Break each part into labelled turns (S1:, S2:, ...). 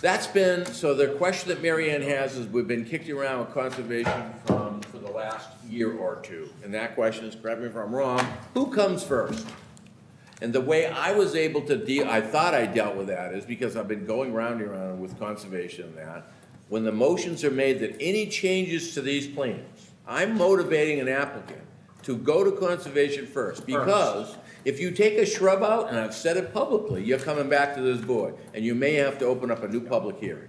S1: That's been, so the question that Marianne has is, we've been kicked around with conservation from, for the last year or two. And that question is, correct me if I'm wrong, who comes first? And the way I was able to deal, I thought I dealt with that, is because I've been going round and round with conservation and that. When the motions are made that any changes to these plans, I'm motivating an applicant to go to conservation first. Because if you take a shrub out, and I've said it publicly, you're coming back to this board, and you may have to open up a new public hearing.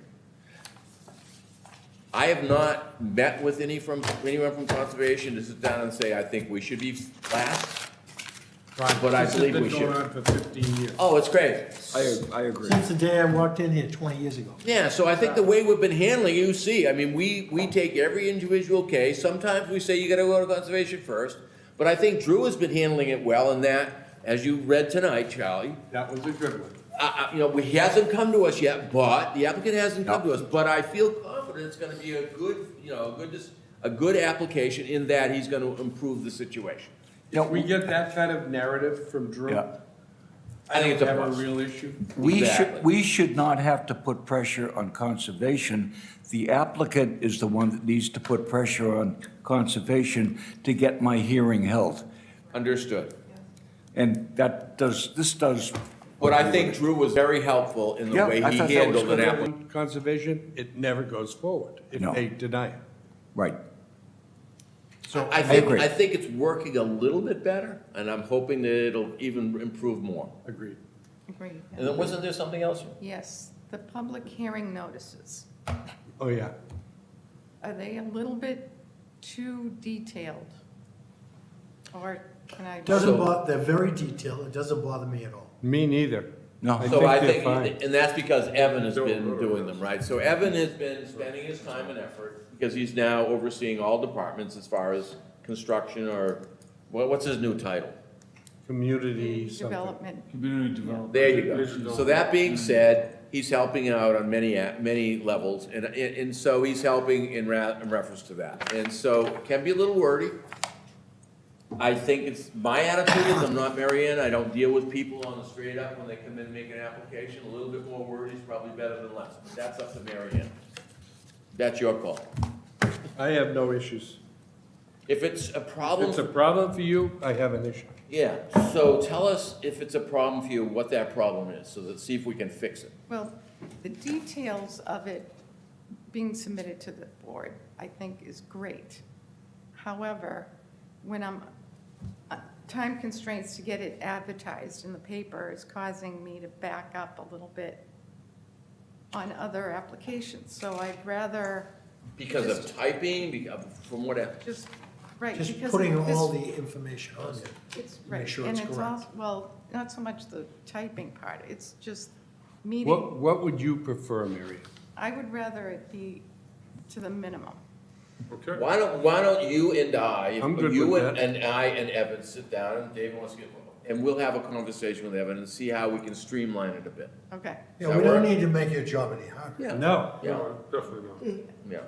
S1: I have not met with any from, anyone from conservation to sit down and say, I think we should be last. But I believe we
S2: This has been
S1: should.
S2: going on for fifteen years.
S1: Oh, it's crazy.
S3: I, I agree.
S4: Since the day I walked in here twenty years ago.
S1: Yeah, so I think the way we've been handling, you see, I mean, we, we take every individual case, sometimes we say you gotta go to conservation first, but I think Drew has been handling it well in that, as you read tonight, Charlie,
S2: That was a good one.
S1: uh, uh, you know, we- he hasn't come to us yet, but, the applicant hasn't come to us, but I feel confident it's gonna be a good, you know, a good, dis- a good application in that he's gonna improve the situation.
S2: If we get that kind of narrative from Drew,
S3: Yeah.
S1: I
S2: I
S1: think
S2: don't
S1: it's a
S2: have a
S1: plus.
S2: real issue.
S3: We
S1: Exactly.
S3: should, we should not have to put pressure on conservation. The applicant is the one that needs to put pressure on conservation to get my hearing held.
S1: Understood.
S3: And that does, this does.
S1: But I think Drew was very helpful in the
S3: Yeah,
S1: way
S3: I
S1: he
S3: thought that was
S1: handled an
S3: good.
S1: application.
S2: Conservation, it never goes forward if
S3: No.
S2: they deny it.
S3: Right.
S1: I think,
S3: agree.
S1: I think it's working a little bit better, and I'm hoping that it'll even improve more.
S2: Agreed.
S5: Agreed.
S1: And then wasn't there something else?
S5: Yes, the public hearing notices,
S2: Oh, yeah.
S5: are they a little bit too detailed? Or can I?
S4: Doesn't
S1: So-
S4: bother, they're very detailed, it doesn't bother me at all.
S2: Me neither.
S3: No.
S2: I
S1: So I
S2: think they're
S1: think,
S2: fine.
S1: and that's because Evan has
S2: Don't
S1: been
S2: go to
S1: doing them, right? So Evan has been spending his time and effort, because he's now overseeing all departments as far as construction or, what, what's his new title?
S2: Community something.
S5: Development,
S6: Community development.
S1: There you go. So that being said, he's helping out on many, a- many levels, and, and and so he's helping in ra, in reference to that. And so, can be a little wordy. I think it's, my attitude is, I'm not Mary Ann, I don't deal with people on the straight up when they come in and make an application. A little bit more wordy is probably better than less, but that's up to Mary Ann. That's your call.
S2: I have no issues.
S1: If it's a
S2: If
S1: problem
S2: it's a problem for you, I have an issue.
S1: Yeah, so tell us if it's a problem for you, what that problem is, so that, see if we can fix it.
S5: well, the details of it being submitted to the board, I think is great. However, when I'm, uh, time constraints to get it advertised in the paper is causing me to back up a little bit on other applications, so I'd rather
S1: Because of typing, be- of- from what, I-
S5: just, right, because.
S4: Just putting
S5: this-
S4: all the information on there.
S5: It's,
S4: Make
S5: right,
S4: sure
S5: and
S4: it's
S5: it's
S4: correct.
S5: also, well, not so much the typing part, it's just
S2: What,
S5: meeting.
S2: what would you prefer, Mary?
S5: I would rather it be to the minimum.
S2: Okay.
S1: why don't, why don't you and I,
S2: I'm good
S1: you
S2: with
S1: and,
S2: that.
S1: and I and Evan sit down, and Dave wants to get, and we'll have a conversation with Evan and see how we can streamline it a bit.
S5: Okay,
S4: Yeah,
S1: That
S4: we don't
S1: work?
S4: need to make your job any harder.
S1: Yeah.
S2: No.
S1: Yeah,
S2: definitely not.
S1: yeah.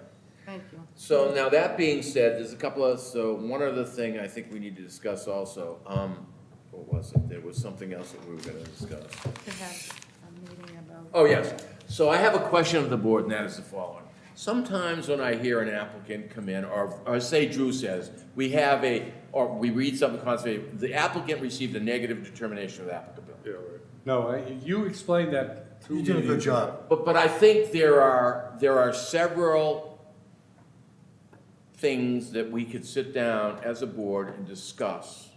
S5: thank you.
S1: So now that being said, there's a couple of, so one other thing I think we need to discuss also, um, what was it? There was something else that we were gonna discuss.
S5: To have a meeting about.
S1: Oh, yes. So I have a question of the board, and that is the following. Sometimes when I hear an applicant come in, or, or say Drew says, we have a, or we read something constantly, the applicant received a negative determination of applicability.
S2: No, I- you explained that. to
S4: You did a
S2: me.
S4: good job.
S1: But, but I think there are, there are several things that we could sit down as a board and discuss.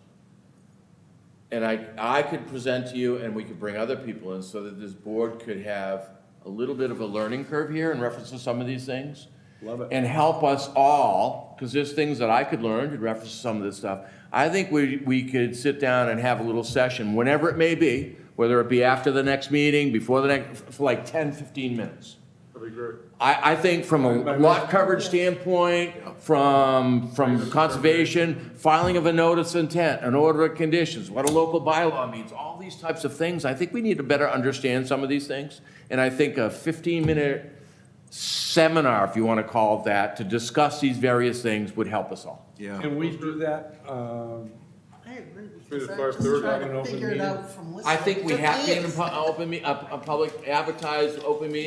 S1: And I, I could present to you, and we could bring other people in, so that this board could have a little bit of a learning curve here in reference to some of these things.
S2: Love it.
S1: And help us all, because there's things that I could learn in reference to some of this stuff. I think we, we could sit down and have a little session, whenever it may be, whether it be after the next meeting, before the next, for like 10, 15 minutes. I, I think from a lot coverage standpoint, from, from conservation, filing of a notice of intent, an order of conditions, what a local bylaw means, all these types of things, I think we need to better understand some of these things. And I think a fifteen-minute seminar, if you want to call it that, to discuss these various things would help us all.
S3: Yeah.
S2: Can we do that? um,
S7: I agree,
S2: Three to
S7: because I'm
S2: five
S7: just
S2: thirty,
S7: trying
S2: like an
S7: to
S2: open
S7: figure it
S2: meeting.
S7: out from listening.
S1: I think we
S7: for
S1: have to, be in a
S7: years.
S1: pu- open, me- a, a public advertised, open meeting